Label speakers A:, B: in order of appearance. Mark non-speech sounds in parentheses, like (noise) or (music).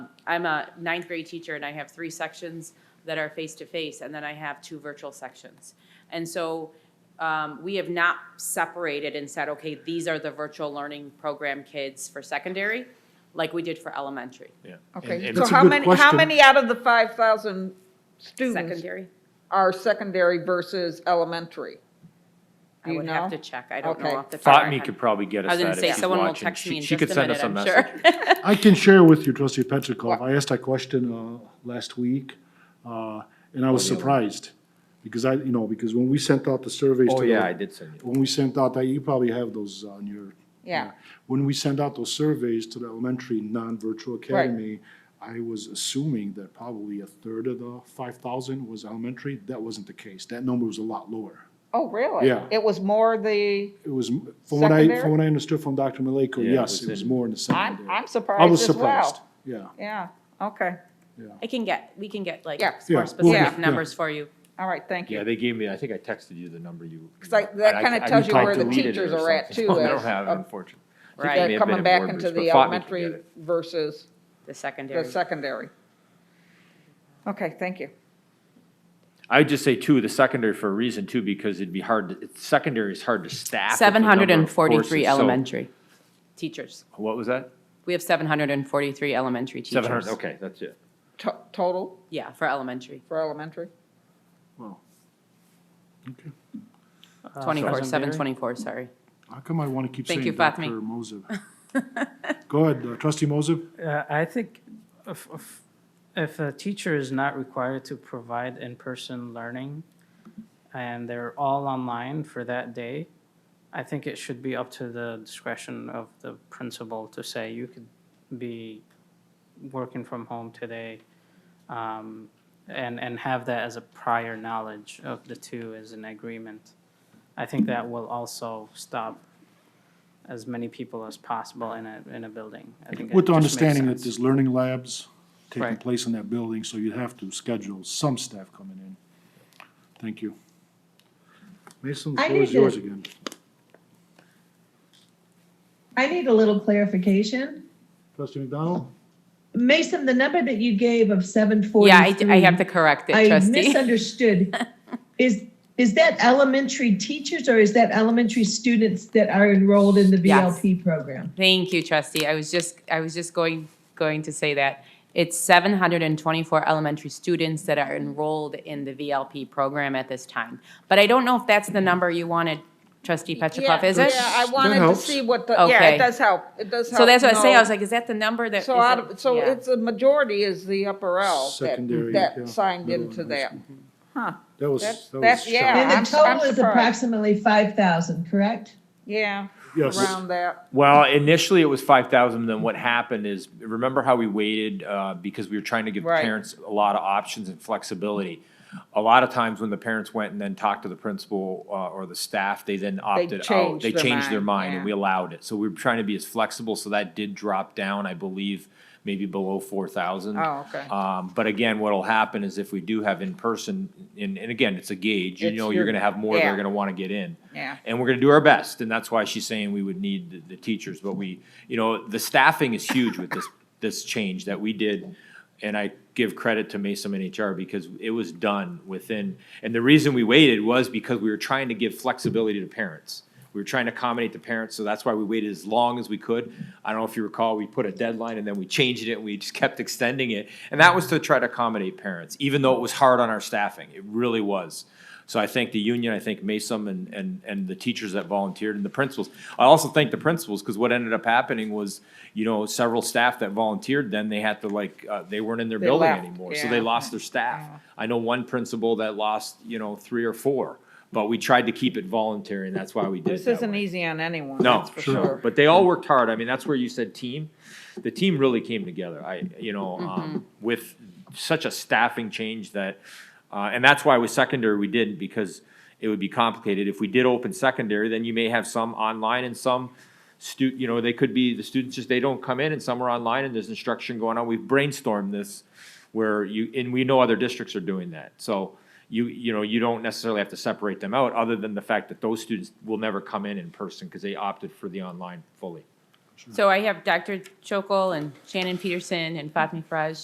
A: I'm a ninth grade teacher and I have three sections that are face-to-face, and then I have two virtual sections. And so um, we have not separated and said, okay, these are the virtual learning program kids for secondary, like we did for elementary,
B: Yeah. And-
C: Okay,
B: and
C: so
D: That's a
C: how
D: good
C: many, how
D: question.
C: many out of the five thousand students
A: secondary.
C: are secondary versus elementary? Do
A: I
C: you
A: would have to
C: know?
A: check. I don't
C: Okay.
A: know off the top of my
E: Fatmi
A: head.
E: could probably get
A: I
E: us
A: was
E: that
A: gonna
E: if
A: say,
E: she's
A: someone will
E: watching.
A: text me
E: She
A: in
E: she
A: just
E: could
A: a
E: send
A: minute,
E: us a
A: I'm
E: message.
A: sure.
D: I can share with you, trustee Petrikov, I asked that question uh, last week, uh, and I was
B: Oh,
D: surprised, because I, you know, because when we sent out the surveys.
B: Oh,
D: to
B: yeah,
D: the-
B: I did send you.
D: When we sent out, that you probably have those on your.
C: Yeah.
D: When we sent out those surveys to the elementary non-virtual academy, I was assuming that probably a third of the five thousand was elementary. That wasn't the case. That number was a lot lower.
C: Oh, really?
D: Yeah.
C: It was more the,
D: It was, m- from what I,
C: Secondary?
D: from what I understood from Dr. Maleko,
B: Yeah, it
D: yes,
B: was
D: it was
B: in-
D: more in the
C: I'm,
D: secondary.
C: I'm
D: I was
C: surprised as
D: surprised,
C: well.
D: yeah.
C: Yeah, okay,
A: I can get, we can get like
C: Yeah.
D: Yeah,
A: more
D: we'll
A: specific
C: get-
D: yeah.
A: numbers for you.
C: all right, thank
B: Yeah,
C: you.
B: they gave me, I think I texted you the number you.
C: (laughs) Because I- that
B: I-
C: kinda
B: I think
C: tells you
B: I
C: where the
B: deleted it or
C: teachers are at,
E: (laughs)
B: something.
C: too,
B: I don't
C: as
B: have it,
C: of-
B: unfortunately. I think
A: Right.
B: it
C: They're
B: may have been
C: Coming
B: in
C: back
B: board
C: into
B: groups,
C: the
B: but Fatmi could get
C: elementary
B: it.
C: versus
A: The
C: the
A: secondary.
C: secondary. Okay, thank you.
E: I'd just say too, the secondary for a reason too, because it'd be hard, to- it's- secondary is hard to staff. with the
A: Seven
E: number of
A: hundred and forty-three
E: courses. So-
A: elementary teachers.
E: What was that?
A: We have seven hundred and forty-three elementary teachers.
E: Seven hundred, okay, that's it.
C: To- Total
A: Yeah, for elementary,
C: for elementary?
A: twenty-four, seven twenty-four, sorry.
D: How come I want to keep
A: Thank
D: saying
A: you, Fatmi.
D: Dr. Mosib? Go ahead, uh, trustee Mosib.
F: Uh, I think if, if, if a teacher is not required to provide in-person learning and they're all online for that day, I think it should be up to the discretion of the principal to say, you could be working from home today. Um, and, and have that as a prior knowledge of the two as an agreement. I think that will also stop as many people as possible in a, in a building. I think
D: With
F: it
D: the
F: just makes
D: understanding that
F: sense.
D: there's learning labs taking
F: Right.
D: place in that building, so you'd have to schedule some staff coming in. Thank you. Mason, the
G: I
D: floor is
G: need to-
D: yours again.
G: I need a little clarification.
D: Trustee McDonald?
G: Mason, the number that you gave of seven forty-three.
A: Yeah, I, I have to correct it,
G: I
A: trustee. (laughs)
G: misunderstood. Is, is that elementary teachers or is that elementary students that are enrolled in the
A: Yes.
G: VLP program?
A: Thank you, trustee. I was just, I was just going, going to say that. It's seven hundred and twenty-four elementary students that are enrolled in the VLP program at this time. But I don't know if that's the number you wanted, trustee Petrikov,
C: Yeah,
A: is it?
C: Yeah, I wanted to
D: helps.
C: see what the, yeah,
A: Okay.
C: it does help, it does help.
A: So that's what I say, I
C: know.
A: was like, is that the number that?
C: So
A: is
C: out
A: it-
C: of, so
A: yeah.
C: it's a majority is the upper L
D: Secondary,
C: that,
D: yeah,
C: that signed
D: middle
C: into
D: and high
C: that.
D: school.
C: Huh,
D: That was,
C: That's-
D: that was
C: that's- yeah.
D: shocking.
G: And the
C: I'm- I'm
G: total is
C: surprised.
G: approximately five thousand, correct?
C: yeah,
D: Yes,
C: around that.
E: Well, initially it was five thousand, then what happened is, remember how we waited, uh, because we were trying to give
C: Right.
E: parents a lot of options and flexibility? A lot of times when the parents went and then talked to the principal, uh, or the staff, they then opted out.
C: changed
E: They
C: their
E: changed their
C: mind,
E: mind and
C: yeah.
E: we allowed it. So we were trying to be as flexible, so that did drop down, I believe, maybe below four thousand.
C: Oh, okay.
E: Um, but again, what'll happen is if we do have in-person, and, and again, it's a gauge, you
C: It's
E: know,
C: your-
E: you're gonna have more that
C: yeah.
E: are gonna wanna get in.
C: Yeah.
E: And we're gonna do our best, and that's why she's saying we would need the, the teachers, but we, you know, the staffing is huge with this, (laughs) this change that we did. And I give credit to Mason and HR because it was done within, and the reason we waited was because we were trying to give flexibility to parents. We were trying to accommodate the parents, so that's why we waited as long as we could. I don't know if you recall, we put a deadline and then we changed it and we just kept extending it. And that was to try to accommodate parents, even though it was hard on our staffing. It really was. So I thank the union, I thank Mason and, and, and the teachers that volunteered and the principals. I also thank the principals, because what ended up happening was, you know, several staff that volunteered, then they had to like, uh, they weren't in their
C: They
E: building
C: left,
E: anymore, so they
C: yeah.
E: lost their staff. I know one principal that lost, you know, three or four, but we tried to keep it voluntary, and that's why we did it
C: This
E: that
C: isn't
E: way.
C: easy on anyone,
E: No,
C: that's for
E: sure,
C: sure.
E: but they all worked hard. I mean, that's where you said team. The team really came together. I, you know,
C: Mm-hmm.
E: um, with such a staffing change that, uh, and that's why with secondary we didn't because it would be complicated. If we did open secondary, then you may have some online and some stu, you know, they could be, the students just, they don't come in and some are online and there's instruction going on. We've brainstormed this where you, and we know other districts are doing that. So you, you know, you don't necessarily have to separate them out, other than the fact that those students will never come in in person because they opted for the online fully.
A: So I have Dr. Chokol and Shannon Peterson and Fatmi Faraj